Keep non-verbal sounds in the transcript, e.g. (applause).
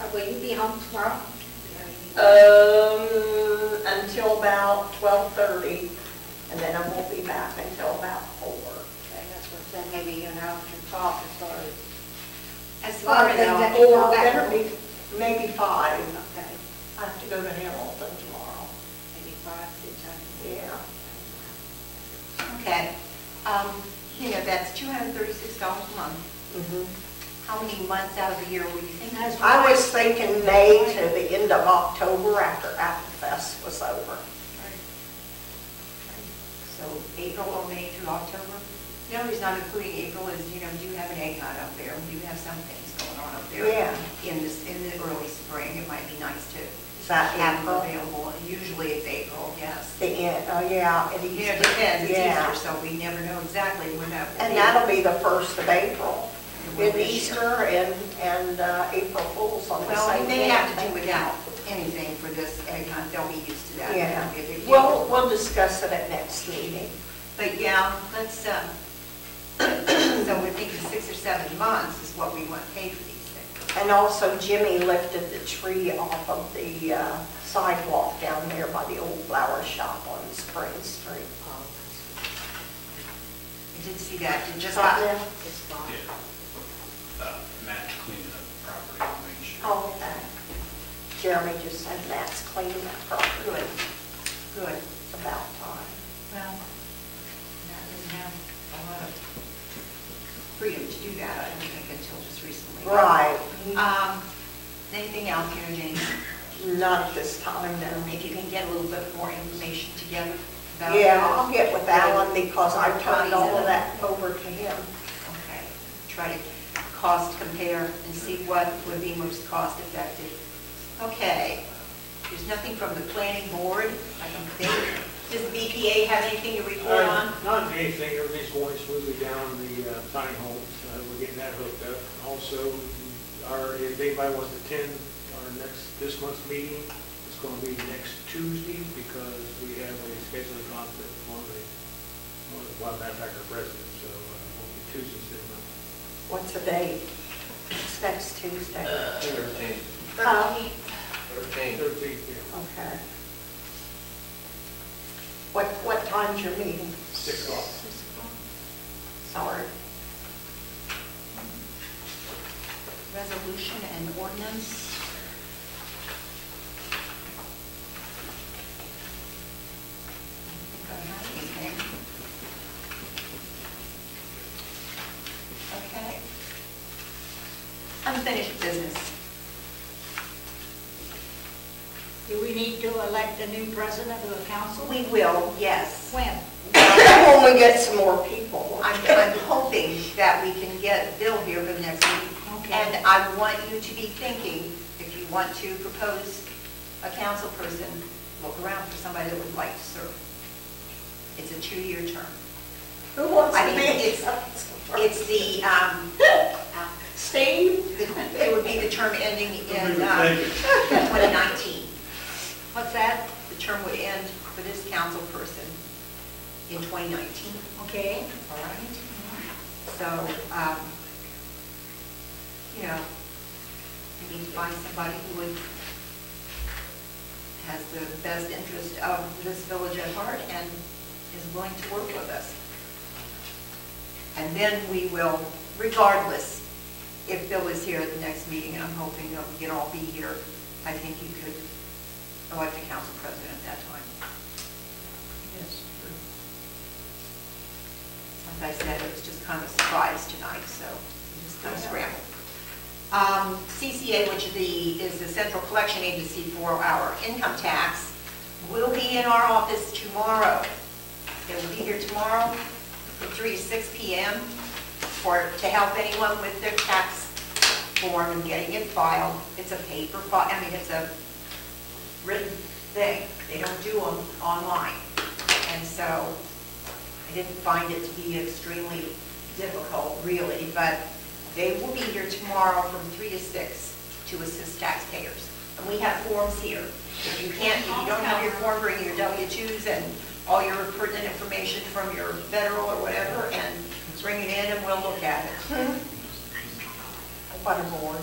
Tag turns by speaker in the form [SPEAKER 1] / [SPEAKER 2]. [SPEAKER 1] Uh, Will you be home tomorrow?
[SPEAKER 2] Uh, Um, until about twelve thirty, and then I won't be back until about four.
[SPEAKER 1] Okay, that's what I'm saying, maybe you and I can talk as far as. As
[SPEAKER 2] Or
[SPEAKER 1] far as that.
[SPEAKER 2] Oh, Or better be, maybe five.
[SPEAKER 1] Okay,
[SPEAKER 2] I have to go to Hamilton tomorrow.
[SPEAKER 1] maybe five, six, I
[SPEAKER 2] Yeah.
[SPEAKER 3] Okay, um, you know, that's two hundred and thirty-six dollars a month. How many months out of the year would you think?
[SPEAKER 1] And that's-
[SPEAKER 2] Mm-hmm. I was thinking May to the end of October after Apple Fest was over.
[SPEAKER 3] So April or May through October? The only reason I'm including April is, you know, you do have an egg hunt up there, you do have some things going on up there.
[SPEAKER 2] Yeah.
[SPEAKER 3] In this, in the early spring, it might be nice to
[SPEAKER 2] Is that
[SPEAKER 3] have them
[SPEAKER 2] April?
[SPEAKER 3] available, usually it's April, yes.
[SPEAKER 2] The end, oh, yeah. it
[SPEAKER 3] You
[SPEAKER 2] is-
[SPEAKER 3] know, it depends, it's
[SPEAKER 2] Yeah.
[SPEAKER 3] Easter, so we never know exactly when that will be.
[SPEAKER 2] And that'll be the first of April,
[SPEAKER 3] It will
[SPEAKER 2] with
[SPEAKER 3] be
[SPEAKER 2] Easter and, and uh, April Fools on the
[SPEAKER 3] Well,
[SPEAKER 2] same
[SPEAKER 3] we
[SPEAKER 2] day.
[SPEAKER 3] may have to
[SPEAKER 2] I
[SPEAKER 3] do
[SPEAKER 2] think.
[SPEAKER 3] without anything for this egg hunt, they'll be used to that.
[SPEAKER 2] Yeah,
[SPEAKER 3] It'll be a big deal.
[SPEAKER 2] we'll, we'll discuss it at next meeting.
[SPEAKER 3] But yeah, let's, um, (clears throat) so we think six or seven months is what we want paid for these things.
[SPEAKER 2] And also Jimmy lifted the tree off of the uh, sidewalk down there by the old flower shop on Spring Street.
[SPEAKER 3] I did see that, it just
[SPEAKER 2] Is
[SPEAKER 3] got,
[SPEAKER 2] that them?
[SPEAKER 1] It's fine.
[SPEAKER 4] Yeah. Uh, Matt cleaning up the property, and making sure.
[SPEAKER 2] Oh, okay. Jeremy just said Matt's cleaning that property.
[SPEAKER 3] good, good.
[SPEAKER 2] It's about time.
[SPEAKER 3] Well, Matt doesn't have a lot of freedom to do that, I don't think, until just recently.
[SPEAKER 2] Right.
[SPEAKER 3] Um, anything else, you know, Jane?
[SPEAKER 2] Not at this time, no.
[SPEAKER 3] If you can get a little bit more information together about.
[SPEAKER 2] Yeah,
[SPEAKER 3] the-
[SPEAKER 2] I'll get with Alan because I turned all of
[SPEAKER 3] Bodies
[SPEAKER 2] that over to him.
[SPEAKER 3] Okay, try to cost compare and see what would be most cost effective. Okay, there's nothing from the planning board, I don't think. Does BPA have anything to report on?
[SPEAKER 5] Uh, Not anything, everything's going smoothly down the uh, tiny homes, Uh, we're getting that hooked up. Also, our, if anybody wants to attend our next, this month's meeting, it's going to be next Tuesday because we have a scheduling conflict for the, for the Wild Manufacturer President, so uh, it'll be Tuesday, so uh,
[SPEAKER 2] What's the date? It's next Tuesday.
[SPEAKER 6] Thirteen,
[SPEAKER 2] Uh,
[SPEAKER 6] thirteen.
[SPEAKER 5] thirteenth, yeah,
[SPEAKER 2] Okay. What, what time's your meeting?
[SPEAKER 5] six o'clock.
[SPEAKER 2] Sorry.
[SPEAKER 3] Resolution and ordinance? I don't think I have anything. Okay. Unfinished business.
[SPEAKER 1] Do we need to elect a new president of the council?
[SPEAKER 3] We will, yes.
[SPEAKER 1] When?
[SPEAKER 2] When we get some more people.
[SPEAKER 3] I'm, I'm hoping that we can get Bill here for the next meeting.
[SPEAKER 1] Okay.
[SPEAKER 3] And I want you to be thinking, if you want to propose a council person, look around for somebody that would like to serve. It's a two-year term.
[SPEAKER 2] Who wants
[SPEAKER 3] I
[SPEAKER 2] to
[SPEAKER 3] mean, it's-
[SPEAKER 2] be?
[SPEAKER 3] It's the, um, uh,
[SPEAKER 2] Steve?
[SPEAKER 3] it would be the term ending in uh,
[SPEAKER 5] Thank you.
[SPEAKER 3] 2019.
[SPEAKER 1] What's that?
[SPEAKER 3] The term would end for this council person in 2019,
[SPEAKER 1] Okay.
[SPEAKER 3] all right? So, um, you know, we need to find somebody who would, has the best interest of this village at heart and is willing to work with us. And then we will, regardless, if Bill is here at the next meeting, I'm hoping that we can all be here, I think you could elect a council president at that time. Like I said, it was just kind of a surprise tonight, so we just kind of scrambled. Um, CCA, which is the, is the Central Collection Agency for our income tax, will be in our office tomorrow. They will be here tomorrow from 3 to 6 PM for, to help anyone with their tax form and getting it filed. It's a paper file, I mean, it's a written thing. They don't do them online. And so I didn't find it to be extremely difficult, really, but they will be here tomorrow from 3 to 6 to assist taxpayers. And we have forms here. If you can't, if you don't have your form, bring your W-2s and all your pertinent information from your federal or whatever, and bring it in and we'll look at it.
[SPEAKER 2] What a board.